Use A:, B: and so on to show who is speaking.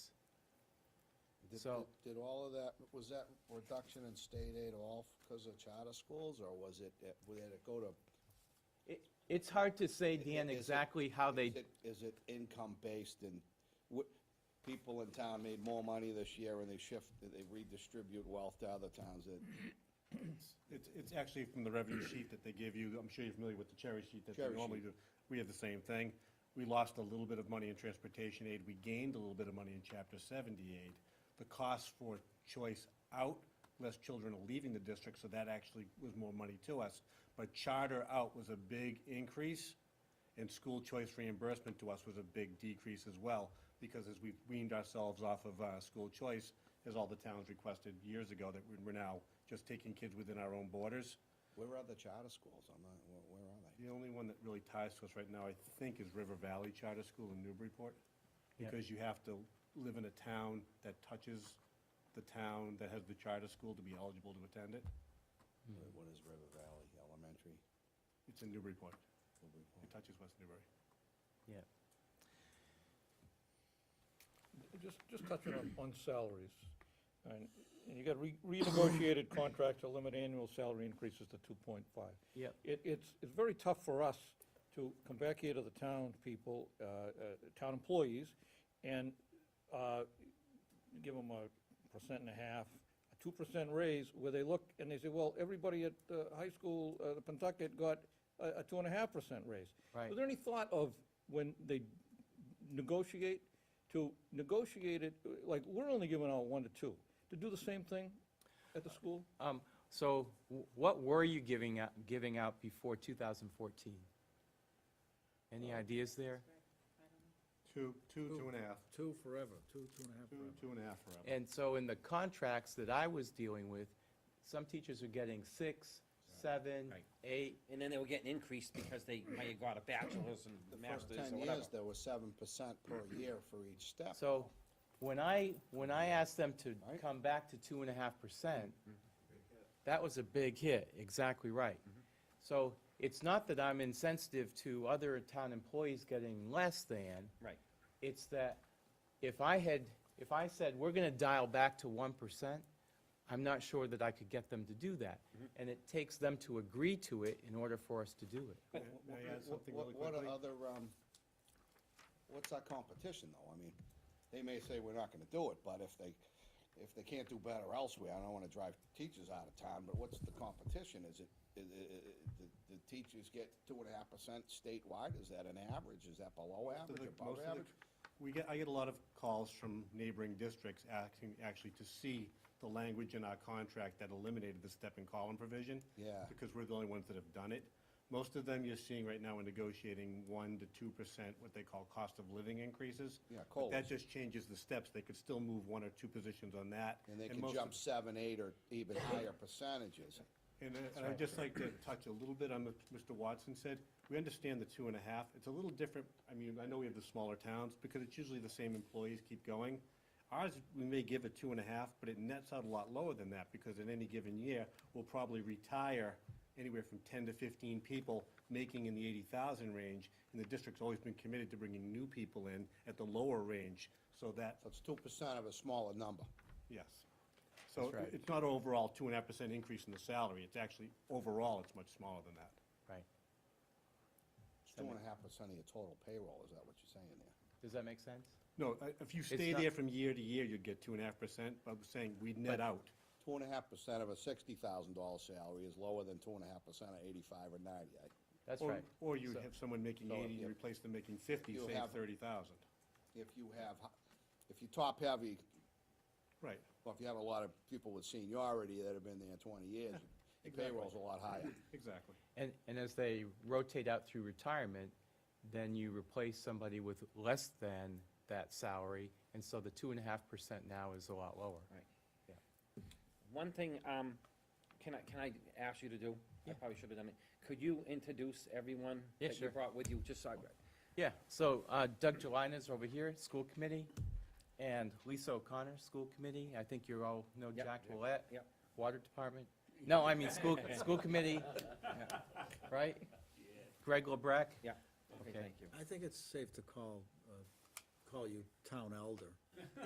A: Did-
B: So-
A: did- Did all of that, was that reduction in state aid all because of charter schools, or was it, uh, would it go to?
B: It- It's hard to say,
A: Is it-
B: Dan,
A: is it-
B: exactly how they,
A: Is it- Is it income-based and, wh- people in town made more money this year and they shift, they redistribute wealth to other towns that,
C: It's, it's actually from the revenue sheet that they give you. I'm sure you're familiar with the cherry sheet that they
A: Cherry
C: normally
A: sheet.
C: do. We have the same thing. We lost a little bit of money in transportation aid. We gained a little bit of money in chapter seventy aid. The cost for choice out, less children are leaving the district, so that actually was more money to us. But charter out was a big increase, and school choice reimbursement to us was a big decrease as well, because as we've weaned ourselves off of, uh, school choice, as all the towns requested years ago, that we're now just taking kids within our own borders.
A: where are the charter schools? I'm not, where- where are they?
C: The only one that really ties to us right now, I think, is River Valley Charter School in Newburyport, because you have to live in a town that touches the town that has the charter school to be eligible to attend it.
A: Wait, What is River Valley Elementary?
C: It's in Newburyport. It touches West Newbury.
B: yeah,
D: Just, just touching on, on salaries. And and you got re- renegotiated contracts to limit annual salary increases to two point five.
B: Yep.
D: It, it's, it's very tough for us to come back here to the town people, uh, uh, town employees, and, uh, give them a percent and a half, a two percent raise, where they look and they say, well, everybody at, uh, high school, uh, the Pentucket got a, a two and a half percent raise.
B: Right.
D: Was there any thought of when they negotiate, to negotiate it, like, we're only giving out one to two, to do the same thing at the school?
B: Um, so wh- what were you giving out, giving out before 2014?
E: Uh,
B: Any ideas there?
C: Two, two, two and a half.
E: Two forever, two, two and a half
C: Two,
E: forever.
C: two and a half forever.
B: And so in the contracts that I was dealing with, some teachers were getting six, seven,
C: Right.
B: eight.
F: And then they were getting increased because they may have got a bachelor's
A: The
F: and
A: first
F: master's
A: ten
F: or whatever.
A: years, there was seven percent per year for each step.
B: So when I, when I asked them to
A: Right.
B: come back to two and a half percent, that was a big hit, exactly right. So it's not that I'm insensitive to other town employees getting less than.
F: Right.
B: It's that if I had, if I said, we're gonna dial back to one percent, I'm not sure that I could get them to do that. And it takes them to agree to it in order for us to do it.
C: May may I add something
A: What-
C: really
A: What
C: quickly?
A: are other, um, what's our competition, though? I mean, they may say we're not gonna do it, but if they, if they can't do better elsewhere, I don't wanna drive teachers out of town, but what's the competition? Is it, i- i- i- the, the teachers get two and a half percent statewide? Is that an average? Is that below
C: So
A: average,
C: the- most
A: above
C: of the-
A: average?
C: We get, I get a lot of calls from neighboring districts asking, actually, to see the language in our contract that eliminated the step and column provision.
A: Yeah.
C: Because we're the only ones that have done it. Most of them you're seeing right now are negotiating one to two percent, what they call cost of living increases.
A: Yeah,
C: But
A: colas.
C: That just changes the steps. They could still move one or two positions on that.
A: And they
C: most
A: can
C: of-
A: jump seven, eight, or even higher percentages.
C: and I- and I'd just like to touch a little bit on what Mr. Watson said. We understand the two and a half. It's a little different, I mean, I know we have the smaller towns, because it's usually the same employees keep going. Ours, we may give a two and a half, but it nets out a lot lower than that, because in any given year, we'll probably retire anywhere from ten to fifteen people, making in the eighty thousand range, and the district's always been committed to bringing new people in at the lower range, so that
A: So it's two percent of a smaller number.
C: Yes. So i- it's not overall two and a half percent increase in the salary, it's actually, overall, it's much smaller than that.
B: Right.
A: It's two and a half percent of your total payroll, is that what you're saying there?
B: Does that make sense?
C: No, I- if you stay
B: not-
C: there from year to year, you'd get two and a half percent, but I'm saying we'd net out.
A: Two and a half percent of a sixty thousand dollar salary is lower than two and a half percent of eighty-five or ninety. I-
B: That's
C: Or-
B: right.
C: Or you'd have someone making
A: so
C: eighty,
A: if-
C: you replace them making fifty,
A: You'll
C: save
A: have-
C: thirty thousand.
A: If you have, h- if you top heavy,
C: Right,
A: well, if you have a lot of people with seniority that have been there twenty years, your
C: Exactly.
A: payroll's a lot higher.
C: exactly.
B: And, and as they rotate out through retirement, then you replace somebody with less than that salary, and so the two and a half percent now is a lot lower.
F: One thing, um, can I, can I ask you to do? I probably should have done it. Could you introduce everyone
B: Yeah,
F: that you
B: sure.
F: brought with you, just so I,
B: Yeah, so uh, Doug Gelina's over here, school committee, and Lisa O'Connor, school committee. I think you all know
F: Yep.
B: Jack Willett.
F: Yep.
B: Water department. No, I mean, school, school committee, right? Greg LeBrecq.
F: yeah, okay,
B: Okay.
F: thank you.
E: I think it's safe to call, uh, call you town elder.